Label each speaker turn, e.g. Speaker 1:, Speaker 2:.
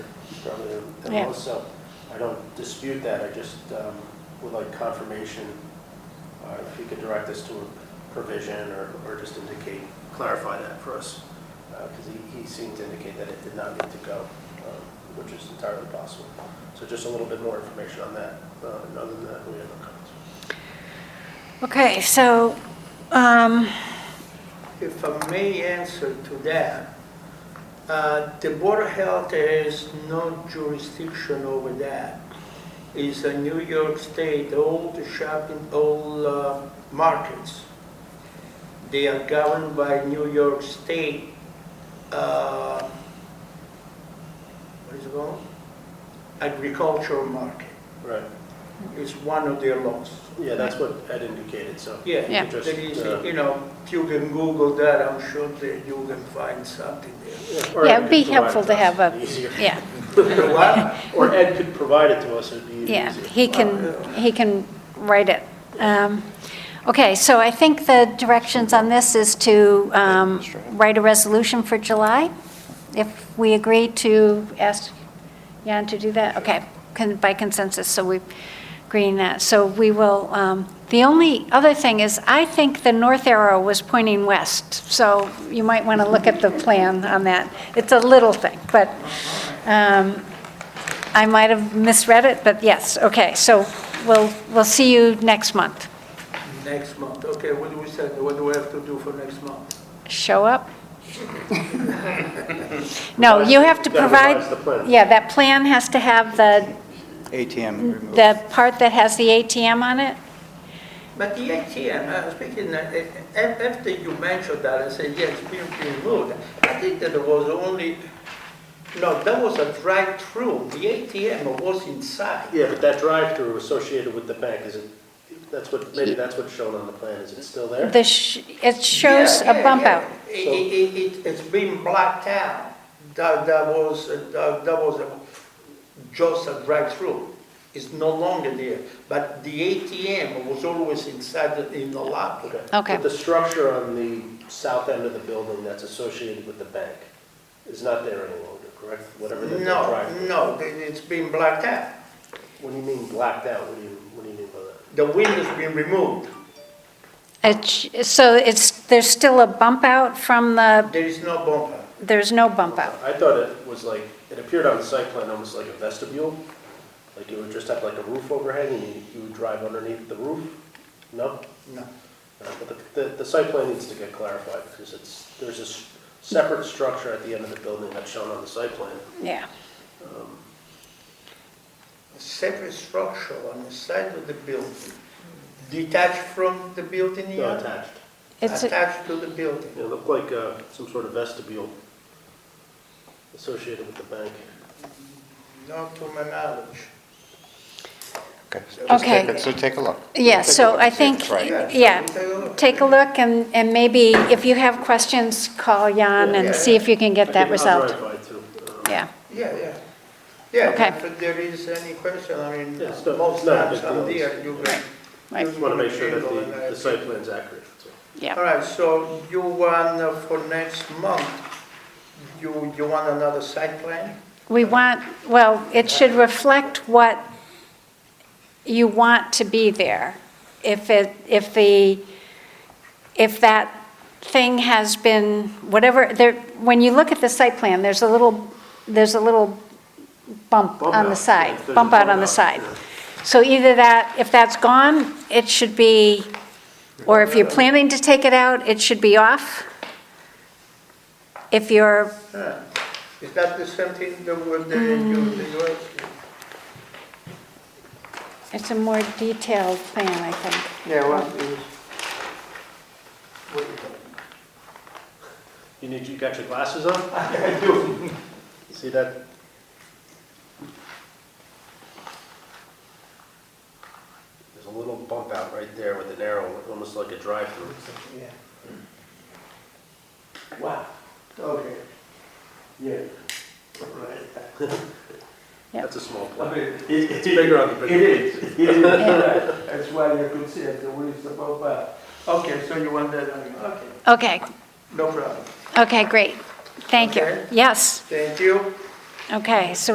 Speaker 1: other than- than
Speaker 2: Yeah.
Speaker 1: most, so I don't dispute that, I just um, would like confirmation, uh, if you could direct us to a provision or, or just indicate, clarify that for us, because he, he seemed to indicate that it did not need to go, um, which is entirely possible. So just a little bit more information on that, uh, and other than that, we have no comments.
Speaker 2: Okay, so, um,
Speaker 3: If I may answer to that, uh, the Board of Health has no jurisdiction over that. It's a New York State, all the shopping, all uh, markets. They are governed by New York State, uh, what is it called? Agricultural market.
Speaker 1: Right,
Speaker 3: It's one of their laws.
Speaker 1: yeah, that's what Ed indicated, so. if you
Speaker 3: Yeah,
Speaker 1: could
Speaker 2: Yeah.
Speaker 1: just,
Speaker 3: There is,
Speaker 1: uh,
Speaker 3: you know, if you can Google that, I'm sure that you can find something there.
Speaker 1: yeah, or
Speaker 2: Yeah,
Speaker 1: Ed could
Speaker 2: it'd be
Speaker 1: provide
Speaker 2: helpful
Speaker 1: it
Speaker 2: to
Speaker 1: us,
Speaker 2: have a-
Speaker 1: it'd be easier.
Speaker 2: yeah,
Speaker 3: What?
Speaker 1: Or Ed could provide it to us, it'd be even
Speaker 2: yeah,
Speaker 1: easier.
Speaker 2: he can, he can write it. Um, Okay, so I think the directions on this is to um, write a resolution for July, if we agree to ask Jan to do that, okay, con- by consensus, so we agreeing that. So we will, um, the only other thing is, I think the north arrow was pointing west, so you might want to look at the plan on that. It's a little thing, but um, I might have misread it, but yes, okay, so we'll, we'll see you next month.
Speaker 3: Next month, okay, what do we say, what do we have to do for next month?
Speaker 2: Show up? No, you have to
Speaker 1: Gotta
Speaker 2: provide.
Speaker 1: revise the plan.
Speaker 2: Yeah, that plan has to have the,
Speaker 4: ATM removed.
Speaker 2: the part that has the ATM on it?
Speaker 3: But the ATM, uh, speaking, uh, uh, af- after you mentioned that, I said, yes, being removed, I think that it was only, no, that was a drive-through, the ATM was inside.
Speaker 1: Yeah, but that drive-through associated with the bank, is it, that's what, maybe that's what's shown on the plan, is it still there?
Speaker 2: The, sh- it shows
Speaker 3: Yeah,
Speaker 2: a
Speaker 3: yeah,
Speaker 2: bump
Speaker 3: yeah.
Speaker 2: out.
Speaker 3: It, it, it- it's been blacked out. That, that was, uh, that, that was a- just a drive-through. It's no longer there, but the ATM was always inside, the- in the lobby.
Speaker 2: Okay.
Speaker 1: But the structure on the south end of the building that's associated with the bank is not there any longer, correct? Whatever the the
Speaker 3: No,
Speaker 1: drive.
Speaker 3: no, it- it's been blacked out.
Speaker 1: What do you mean blacked out? What do you, what do you mean by that?
Speaker 3: The window's been removed.
Speaker 2: It sh- So it's, there's still a bump out from the,
Speaker 3: There is no bumper.
Speaker 2: there's no bump out.
Speaker 1: I thought it was like, it appeared on the site plan almost like a vestibule, like it would just have like a roof overhang and you, you would drive underneath the roof? No?
Speaker 3: No.
Speaker 1: Uh, But the, the, the site plan needs to get clarified, because it's, there's a s- separate structure at the end of the building that's shown on the site plan.
Speaker 2: Yeah.
Speaker 3: Separate structure on the side of the building, detached from the building
Speaker 1: Not
Speaker 3: here,
Speaker 1: attached.
Speaker 2: It's, a-
Speaker 3: attached to the building.
Speaker 1: It looked like, uh, some sort of vestibule associated with the bank.
Speaker 3: Not to my knowledge.
Speaker 4: Okay. so just
Speaker 2: Okay.
Speaker 4: take a- So take a look.
Speaker 2: yeah, so I
Speaker 4: Take a look,
Speaker 2: think,
Speaker 4: see if it's right.
Speaker 2: yeah, take a look, and, and maybe if you have questions, call Jan
Speaker 3: Yeah.
Speaker 2: and see if you can get that
Speaker 1: result.
Speaker 2: resolved.
Speaker 1: Um,
Speaker 2: Yeah.
Speaker 3: Yeah, yeah. Yeah,
Speaker 2: Okay.
Speaker 3: if there is any question, I mean,
Speaker 1: Yeah, it's not-
Speaker 3: most
Speaker 1: it's not a
Speaker 3: times
Speaker 1: big
Speaker 3: I'm
Speaker 1: deal.
Speaker 3: there, you can.
Speaker 2: Right.
Speaker 1: Just want to make sure that the, the site plan's accurate. that's all.
Speaker 3: All
Speaker 2: Yeah,
Speaker 3: right, so you want uh, for next month, you, you want another site plan?
Speaker 2: we want, well, it should reflect what you want to be there. If it, if the, if that thing has been, whatever, there, when you look at the site plan, there's a little, there's a little bump
Speaker 1: Bump
Speaker 2: on the
Speaker 1: out,
Speaker 2: side,
Speaker 1: yeah, there's a
Speaker 2: bump out
Speaker 1: bump
Speaker 2: on the
Speaker 1: out,
Speaker 2: side.
Speaker 1: yeah.
Speaker 2: So either that, if that's gone, it should be, or if you're planning to take it out, it should be off. If you're
Speaker 3: Huh. Is that the same thing that would, uh, you,
Speaker 2: Mm.
Speaker 3: that you asked?
Speaker 2: It's a more detailed plan, I think.
Speaker 3: Yeah, well, it is. What is that?
Speaker 1: You need, you got your glasses on? I do. See that? There's a little bump out right there with an arrow, almost like a drive-through.
Speaker 3: Yeah. Wow, okay. Yeah. Right.
Speaker 2: Yep.
Speaker 1: That's a small
Speaker 3: I
Speaker 1: plot.
Speaker 3: mean,
Speaker 1: It's bigger on the
Speaker 3: It
Speaker 1: bigger.
Speaker 3: is, it is, right. That's why you could see it, the wind is above that. Okay, so you want that on you, okay,
Speaker 2: Okay,
Speaker 3: no problem.
Speaker 2: okay, great. Thank you.
Speaker 3: Okay.
Speaker 2: Yes,
Speaker 3: Thank you.
Speaker 2: okay, so